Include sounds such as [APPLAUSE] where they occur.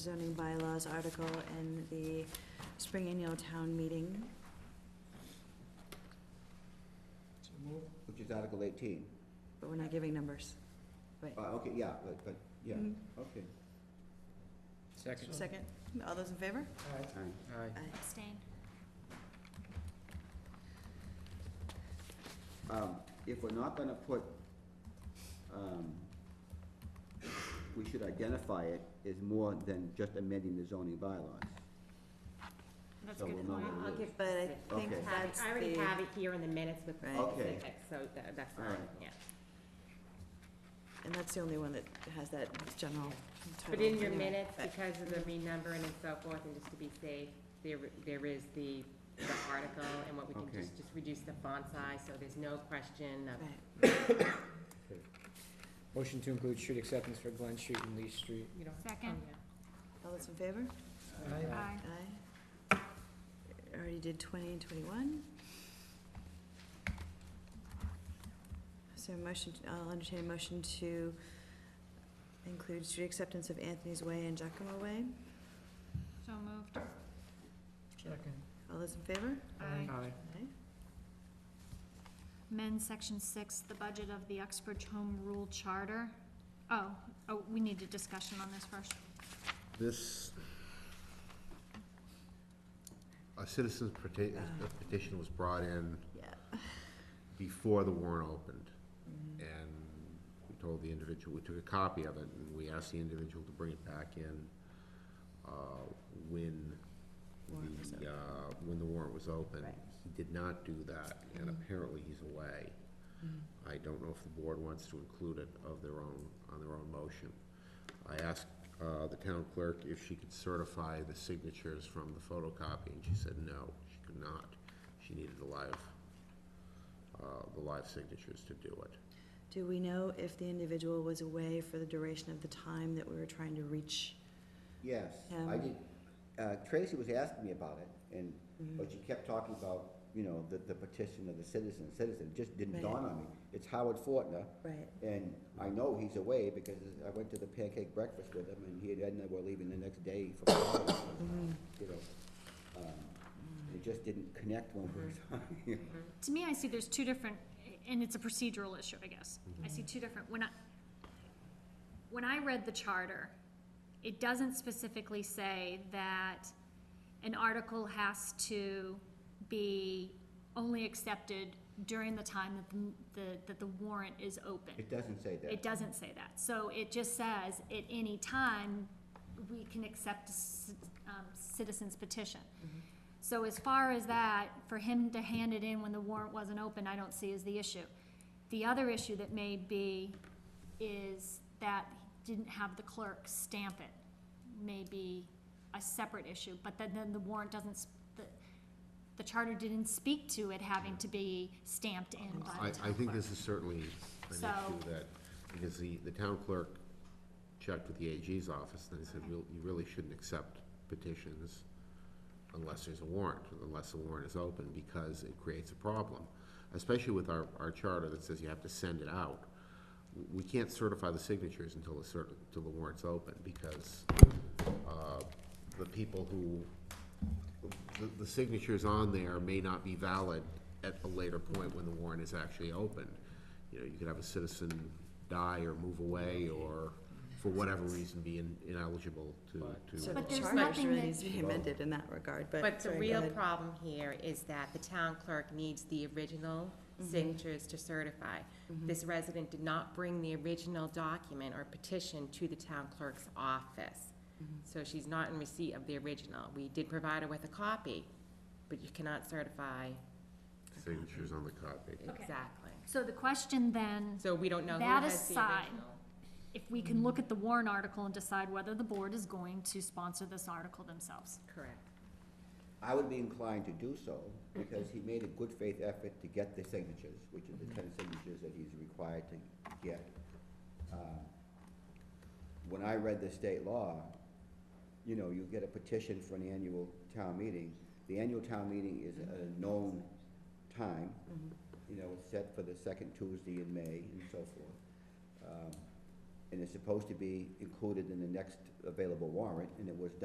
zoning bylaws article in the spring annual town meeting. So move. which is Article eighteen. But we're not giving numbers. Uh, okay, yeah, but, but, yeah, Mhm. okay. Second. Second, all those in favor? Aye. Aye. Aye. Abstain. Um, if we're not gonna put, um, we should identify it as more than just amending the zoning bylaws. That's So a we'll good know point. what it I'll is. give, But I think Okay. have it- that's I already have the, it here in the minutes with the Right. Okay. specifics, so tha- that's All fine, right. yeah. and that's the only one that has that general title. But in your anyway, minutes, but- because of the renumbering and so forth, and just to be safe, there, there is the, the article, and what we can Okay. just, just reduce the font size, so there's no question of Right, Motion to include street acceptance for Glen Street and Lee Street. You Oh, don't. Second. all those in favor? Aye. Aye. Aye. Already did twenty and twenty-one. So motion, I'll entertain a motion to include street acceptance of Anthony's Way and Giacomo Way. So moved. Second. All those in favor? Aye. Aye. Aye. Amend section six, the budget of the Uxbridge Home Rule Charter. Oh, oh, we need a discussion on this first. This, a citizen's peti- a petition was brought in Yeah. before the warrant opened. And we told the individual, we took a copy of it, and we asked the individual to bring it back in uh, when Warrant was the, uh, when the warrant was open. Right. He did not do that, and Mm-hmm. apparently he's away. I don't know if the board wants to include it of their own, on their own motion. I asked uh, the town clerk if she could certify the signatures from the photocopy, and she said no, she could not. She needed the live, uh, the live signatures to do it. Do we know if the individual was away for the duration of the time that we were trying to reach? Yes, I Um, did, uh, Tracy was asking me about it, and, Mm. but she kept talking about, you know, the, the petition of the citizen, citizen, It just didn't Right. dawn on me. It's Howard Fortner, Right. and I know he's away because I went to the pancake breakfast with him, and he and Edna were leaving the next day for Florida, you know. um, It just didn't connect when we were talking. To me, I see there's two different, and it's a procedural issue, I guess. I see two different, when I, when I read the charter, it doesn't specifically say that an article has to be only accepted during the time that the, the, that the warrant is open. [LAUGHS] It doesn't say that. It doesn't say that, so it just says, at any time, we can accept a ci- um, citizen's petition. Mm-hmm. So as far as that, for him to hand it in when the warrant wasn't open, I don't see as the issue. The other issue that may be is that he didn't have the clerk stamp it, may be a separate issue, but then, then the warrant doesn't, s- the, the charter didn't speak to it having to be stamped in I, by the town I think clerk. this is certainly an So- issue that, because the, the town clerk checked with the AG's office, and they said, "Real- you really shouldn't accept petitions unless there's a warrant, unless the warrant is open, because it creates a problem. Especially with our, our charter that says you have to send it out. W- We can't certify the signatures until the cer, until the warrant's open, because, uh, the people who, the, the signatures on there may not be valid at a later point when the warrant is actually opened. You know, you could have a citizen die or move away, or for whatever reason be in- ineligible to, to. So the But there's charter nothing really that- needs to be amended in that regard, but. But the sorry, go real ahead. problem here is that the town clerk needs the original Mm-hmm. signatures to certify. This resident did not bring the original document or petition to the town clerk's office. Mm-hmm. So she's not in receipt of the original. We did provide her with a copy, but you cannot certify Signatures on the copy. Okay. exactly. So the question then So we don't know who That has the aside, original. if we can look at the Warren article and decide whether the board is going to sponsor this article themselves. Correct. I would be inclined to do so, because he made a good faith effort to get the signatures, which are the ten signatures that he's required to get. Um, When I read the state law, you know, you get a petition for an annual town meeting. The annual town meeting is at a known time, you know, it's set for the second Tuesday in May and so forth. Um, and it's supposed to be included in the next available warrant, and it was